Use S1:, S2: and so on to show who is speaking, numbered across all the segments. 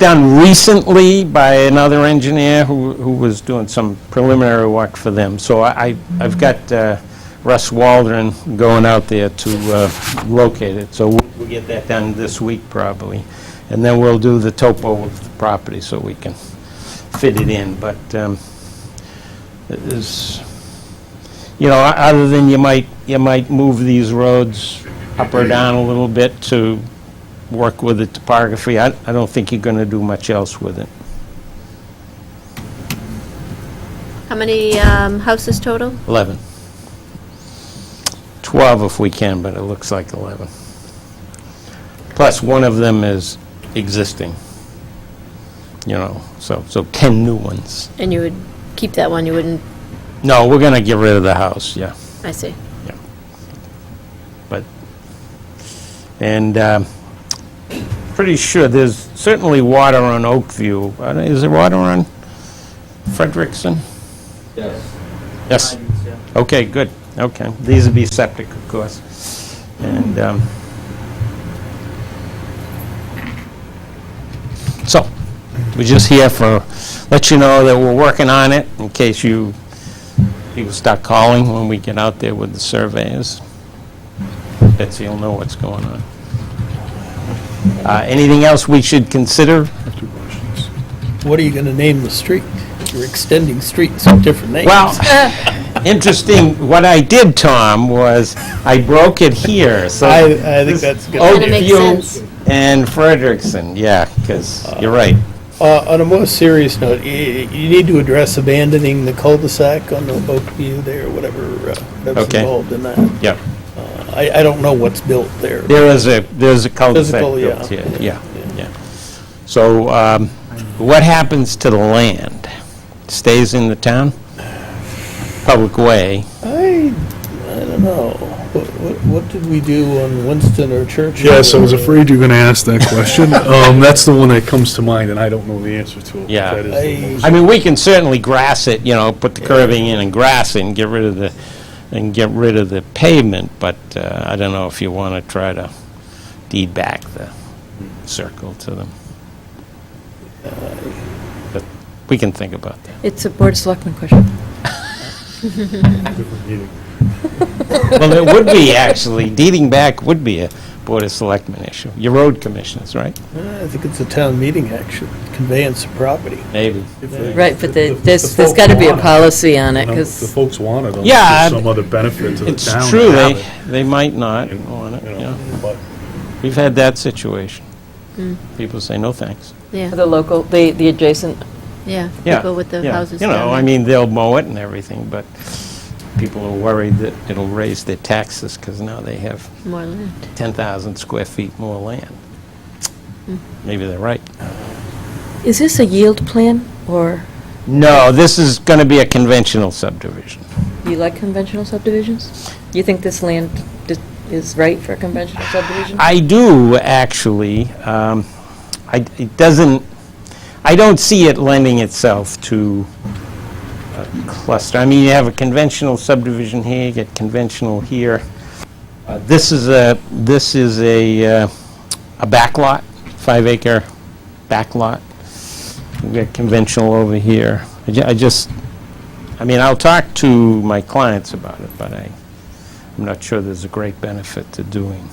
S1: done recently by another engineer who, who was doing some preliminary work for them. So I, I- I've got uh, Russ Waldron going out there to uh, locate it, so we'll we'll get that done this week probably. And then we'll do the topo of the property so we can fit it in, but um, it is, you know, o- other than you might, you might move these roads up or down a little bit to work with the topography, I, I don't think you're going to do much else with it.
S2: How many um, houses total?
S1: 11. 12 if we can, but it looks like 11. Plus, one of them is existing, you know, so, so 10 new ones.
S2: And you would keep that one, you wouldn't,
S1: No, we're going to get rid of the house, yeah.
S2: I see.
S1: but, and um, pretty sure there's certainly water on Oakview. I don't- Is there water on Frederickson? Yes. Yes? Okay, good, okay. These would be septic, of course. And, um, so, we're just here for, let you know that we're working on it in case you, people start calling when we get out there with the surveys. Betsy will know what's going on. Uh, Anything else we should consider?
S3: What are you going to name the street? You're extending streets with different names.
S1: Well, interesting, what I did, Tom, was I broke it here, so.
S3: I, I think that's good.
S2: Kinda makes
S1: Oakview
S2: sense.
S1: and Frederickson, yeah, because you're right.
S3: Uh, on a more serious note, y- you need to address abandoning the cul-de-sac on the Oakview there, whatever, uh, whatever's
S1: Okay.
S3: involved in that.
S1: Yep.
S3: I, I don't know what's built there.
S1: There is a, there's a cul-de-sac
S3: Physical, yeah.
S1: built here, yeah, yeah. So um, what happens to the land? Stays in the town? Public way?
S3: I, I don't know. What, what, what did we do on Winston or Churchill?
S4: Yes, I was afraid you were going to ask that question. Um, That's the one that comes to mind, and I don't know the answer to it. but
S1: Yeah.
S4: that is the
S3: I-
S4: most-
S1: I mean, we can certainly grass it, you know, put the curving in and grass it and get rid of the, and get rid of the pavement, but uh, I don't know if you want to try to deed back the circle to them. But we can think about that.
S5: It's a Board of Selectmen question.
S4: different meeting.
S1: Well, it would be, actually, deeding back would be a Board of Selectmen issue. Your road commissioners, right?
S3: Uh, I think it's a town meeting action, conveyance of property.
S1: Maybe.
S5: Right, but the-
S4: If
S5: there's,
S4: the
S5: there's
S4: folk
S5: got to be a
S4: want it,
S5: policy on it,
S4: you know, if The
S5: because
S4: folks want it,
S1: Yeah,
S4: unless there's some other benefit to the
S1: It's
S4: town. to
S1: true,
S4: have
S1: they,
S4: it,
S1: they might not want it,
S4: you know,
S1: yeah.
S4: but-
S1: We've had that situation. People say, no, thanks.
S2: Yeah,
S5: the local, the, the adjacent,
S2: yeah.
S1: Yeah,
S2: People with the
S1: yeah.
S2: houses
S1: You know, I
S2: down there.
S1: mean, they'll mow it and everything, but people are worried that it'll raise their taxes because now they have
S2: More land.
S1: 10,000 square feet more land.
S2: Hmm.
S1: Maybe they're right.
S5: is this a yield plan, or
S1: No, this is going to be a conventional subdivision.
S5: you like conventional subdivisions? You think this land di- is right for a conventional subdivision?
S1: I do, actually. Um, I- It doesn't, I don't see it lending itself to a cluster. I mean, you have a conventional subdivision here, you get conventional here. Uh, This is a, this is a, uh, a backlot, five-acre backlot. We've got conventional over here. I ju- I just, I mean, I'll talk to my clients about it, but I, I'm not sure there's a great benefit to doing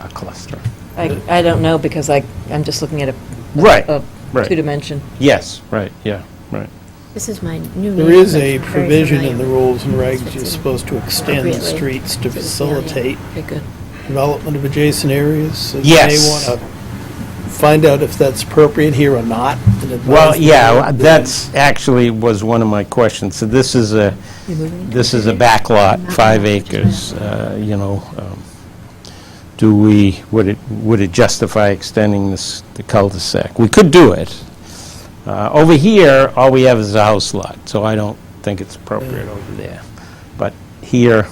S1: a cluster.
S5: I, I don't know, because I, I'm just looking at a,
S1: Right,
S5: a
S1: right.
S5: two-dimension.
S1: Yes, right, yeah, right.
S2: This is my new.
S3: There
S2: neighborhood.
S3: is a
S2: Very
S3: provision in the
S2: familiar.
S3: rules and
S2: That's
S3: regs,
S2: what's
S3: you're
S2: in
S3: supposed to extend the
S2: appropriately
S3: streets to
S2: for this
S3: facilitate
S5: Okay, good.
S3: development of adjacent areas. So
S1: Yes.
S3: You may want to find out if that's appropriate here or not. and advise
S1: Well,
S3: the
S1: yeah,
S3: board.
S1: that's actually was one of my questions. So this is a, this is a backlot, five acres, uh, you know. um, Do we, would it, would it justify extending this, the cul-de-sac? We could do it. Uh, Over here, all we have is a house lot, so I don't think it's appropriate over there. But here,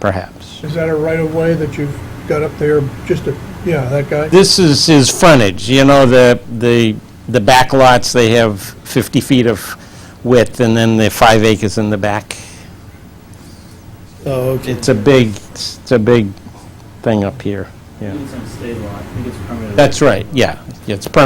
S1: perhaps.
S6: Is that a right-of-way that you've got up there, just a, yeah, that guy?
S1: This is his frontage, you know, the, the, the back lots, they have 50 feet of width, and then the five acres in the back.
S3: Oh, okay.
S1: It's a big, it's a big thing up here.
S7: Yeah.
S8: It's on state law, I think it's permitted.
S7: That's right, yeah. It's permanent